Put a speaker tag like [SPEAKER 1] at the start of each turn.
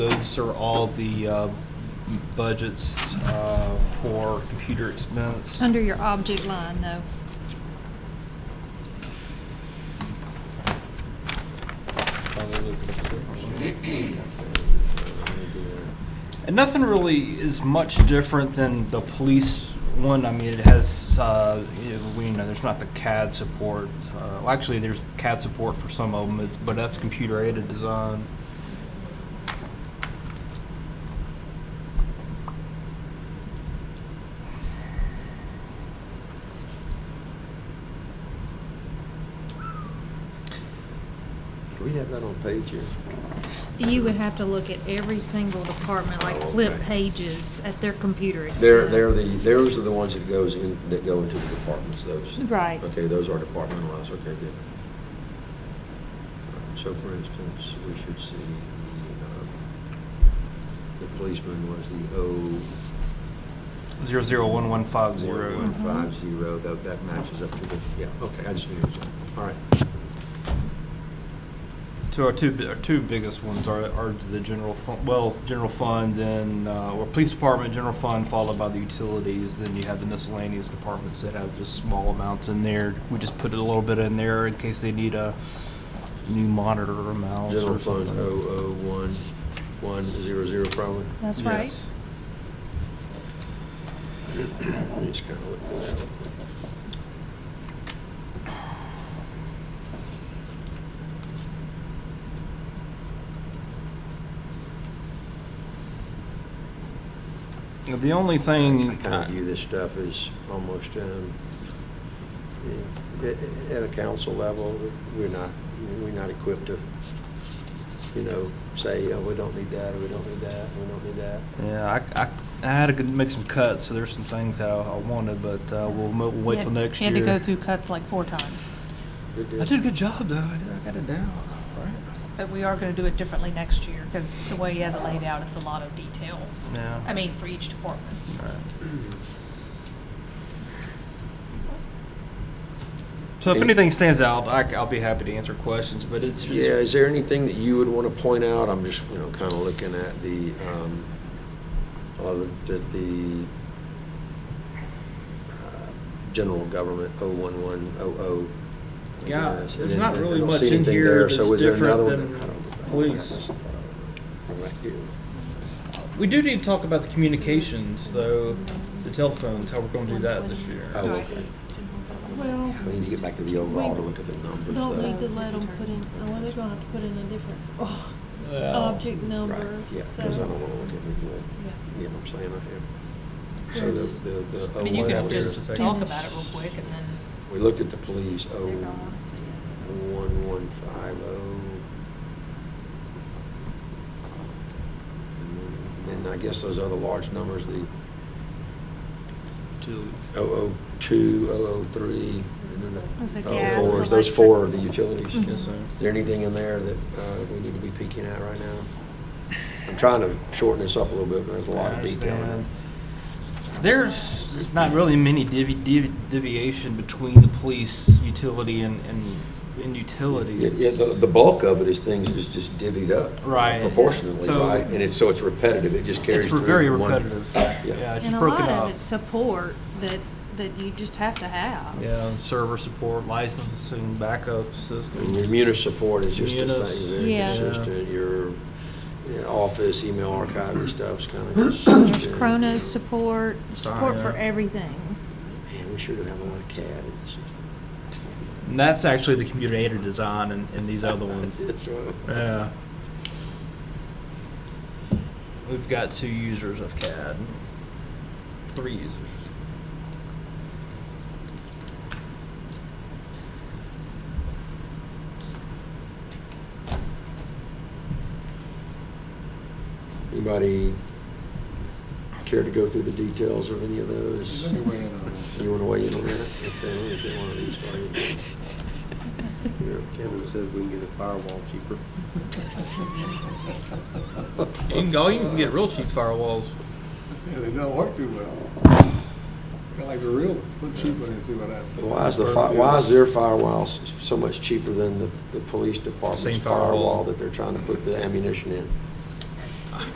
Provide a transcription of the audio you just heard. [SPEAKER 1] Those are all the uh, budgets uh, for computer expense.
[SPEAKER 2] Under your object line, though.
[SPEAKER 1] And nothing really is much different than the police one. I mean, it has, uh, you know, we know there's not the CAD support. Uh, well, Actually, there's CAD support for some of them, it's- but that's computer aided design.
[SPEAKER 3] Do we have that on page here?
[SPEAKER 2] You would have to look at every single department, like
[SPEAKER 3] Oh,
[SPEAKER 2] flip
[SPEAKER 3] okay.
[SPEAKER 2] pages at their computer expense.
[SPEAKER 3] They're, they're the, those are the ones that goes in, that go into the departments, those.
[SPEAKER 2] Right.
[SPEAKER 3] Okay, those are departmentalized, okay, good. So for instance, we should see, the, um, the policeman was the O,
[SPEAKER 1] Zero zero one one five zero.
[SPEAKER 3] One five zero, that, that matches up to the, yeah, okay, I just knew it was, all right.
[SPEAKER 1] So our two, bi- our two biggest ones are, are the general fund, well, general fund, then, uh, or police department, general fund, followed by the utilities. Then you have the miscellaneous departments that have just small amounts in there. We just put a little bit in there in case they need a new monitor or mouse
[SPEAKER 3] General
[SPEAKER 1] or
[SPEAKER 3] fund,
[SPEAKER 1] something.
[SPEAKER 3] O, O, one, one, zero, zero, probably.
[SPEAKER 2] That's right.
[SPEAKER 1] Yes.
[SPEAKER 3] I just kind of looked through that real quick.
[SPEAKER 1] The only
[SPEAKER 3] I
[SPEAKER 1] thing,
[SPEAKER 3] kind of view this stuff as almost, um, yeah, at, at a council level, we're not, we're not equipped to, you know, say, oh, we don't need that, or we don't need that, we don't need that.
[SPEAKER 1] yeah, I, I, I had to good- make some cuts, so there's some things that I, I wanted, but, uh, we'll, mo- we'll wait till next year.
[SPEAKER 4] You had to go through cuts like four times,
[SPEAKER 3] Good deal.
[SPEAKER 1] I did a good job though. I did, I got it down, all right?
[SPEAKER 4] but we are going to do it differently next year because the way he has it laid out, it's a lot of detail.
[SPEAKER 1] Yeah.
[SPEAKER 4] I mean, for each department.
[SPEAKER 1] So if
[SPEAKER 3] Any-
[SPEAKER 1] anything stands out, I, will be happy to answer questions, but it's just.
[SPEAKER 3] Yeah, is there anything that you would want to point out? I'm just, you know, kind of looking at the, um, I looked at the uh, general government, oh, one, one, oh, oh. I
[SPEAKER 1] Yeah,
[SPEAKER 3] guess.
[SPEAKER 1] there's
[SPEAKER 3] And
[SPEAKER 1] not
[SPEAKER 3] then I
[SPEAKER 1] really
[SPEAKER 3] don't
[SPEAKER 1] much
[SPEAKER 3] see
[SPEAKER 1] in
[SPEAKER 3] anything
[SPEAKER 1] here
[SPEAKER 3] there, so
[SPEAKER 1] that's
[SPEAKER 3] is there another
[SPEAKER 1] different
[SPEAKER 3] one?
[SPEAKER 1] than
[SPEAKER 3] I don't know.
[SPEAKER 1] police.
[SPEAKER 3] Right here.
[SPEAKER 1] We do need to talk about the communications though, the telephones, how we're gonna do that this year.
[SPEAKER 3] Oh, okay.
[SPEAKER 5] Well,
[SPEAKER 3] We need to get back to the overall to look at the numbers.
[SPEAKER 5] don't
[SPEAKER 3] though.
[SPEAKER 5] need to let them put in, oh, well, they're gonna have to put in a different oh,
[SPEAKER 1] Well,
[SPEAKER 5] object
[SPEAKER 3] Right,
[SPEAKER 5] number,
[SPEAKER 3] yeah,
[SPEAKER 5] so.
[SPEAKER 3] because I don't want to look at it,
[SPEAKER 5] Yeah.
[SPEAKER 3] you know what I'm saying? I have- So the, the, the.
[SPEAKER 4] I
[SPEAKER 3] oh,
[SPEAKER 4] mean, you
[SPEAKER 3] one
[SPEAKER 4] can
[SPEAKER 1] guys
[SPEAKER 3] was-
[SPEAKER 1] just-
[SPEAKER 4] just talk about it real quick and then.
[SPEAKER 3] We looked at the police, oh,
[SPEAKER 4] They're gonna wanna see it.
[SPEAKER 3] one, one, five, oh. oh. And I guess those other large numbers, the
[SPEAKER 1] to-
[SPEAKER 3] oh, oh, two, oh, oh, three, and then
[SPEAKER 2] Those are
[SPEAKER 3] the
[SPEAKER 2] gas,
[SPEAKER 3] oh, fours. Those four are the utilities.
[SPEAKER 2] Mhm.
[SPEAKER 1] Yes, sir.
[SPEAKER 3] Is there anything in there that, uh, we need to be peeking at right now? I'm trying to shorten this up a little bit, but there's a lot
[SPEAKER 1] I
[SPEAKER 3] of detail in
[SPEAKER 1] understand.
[SPEAKER 3] it.
[SPEAKER 1] There's, there's not really many divi- divi- deviation between the police, utility and, and, and
[SPEAKER 3] Yeah,
[SPEAKER 1] utilities.
[SPEAKER 3] yeah, the, the bulk of it is things that's just divvied up.
[SPEAKER 1] Right.
[SPEAKER 3] Proportionately,
[SPEAKER 1] So-
[SPEAKER 3] right? And it's, so it's repetitive, it just carries
[SPEAKER 1] It's
[SPEAKER 3] through.
[SPEAKER 1] very
[SPEAKER 3] from one-
[SPEAKER 1] repetitive.
[SPEAKER 3] Yeah.
[SPEAKER 1] Yeah, it's
[SPEAKER 2] And
[SPEAKER 1] just
[SPEAKER 2] a
[SPEAKER 1] broken
[SPEAKER 2] lot
[SPEAKER 1] up.
[SPEAKER 2] of it's support that, that you just have to have.
[SPEAKER 1] Yeah, and server support, licensing, backup
[SPEAKER 3] And your
[SPEAKER 1] system.
[SPEAKER 3] munis support is just the
[SPEAKER 1] Munis.
[SPEAKER 3] same, very
[SPEAKER 2] Yeah.
[SPEAKER 3] consistent. Your you know, office, email archive and stuff's kind of consistent.
[SPEAKER 2] There's Chronos support, support for
[SPEAKER 1] Fire.
[SPEAKER 2] everything.
[SPEAKER 3] Man, we should have a lot of CAD in this system.
[SPEAKER 1] And that's actually the computer aided design and, and these other ones.
[SPEAKER 3] That's right.
[SPEAKER 1] Yeah. We've got two users of CAD. Three users.
[SPEAKER 3] Anybody care to go through the details of any of those?
[SPEAKER 6] Let me weigh in on that.
[SPEAKER 3] You want to weigh in on that? Okay, let me get one of these for you. Here, Kevin.
[SPEAKER 7] Kevin says we can get a firewall cheaper.
[SPEAKER 1] You can go, you can get real cheap firewalls.
[SPEAKER 6] Yeah, they don't work too well. Kind of like the real ones, put cheap one and see what happens.
[SPEAKER 3] Why is the, fi- why is their firewall s- so much cheaper than the, the police
[SPEAKER 1] Same
[SPEAKER 3] department's
[SPEAKER 1] firewall.
[SPEAKER 3] firewall that they're trying to put the ammunition in?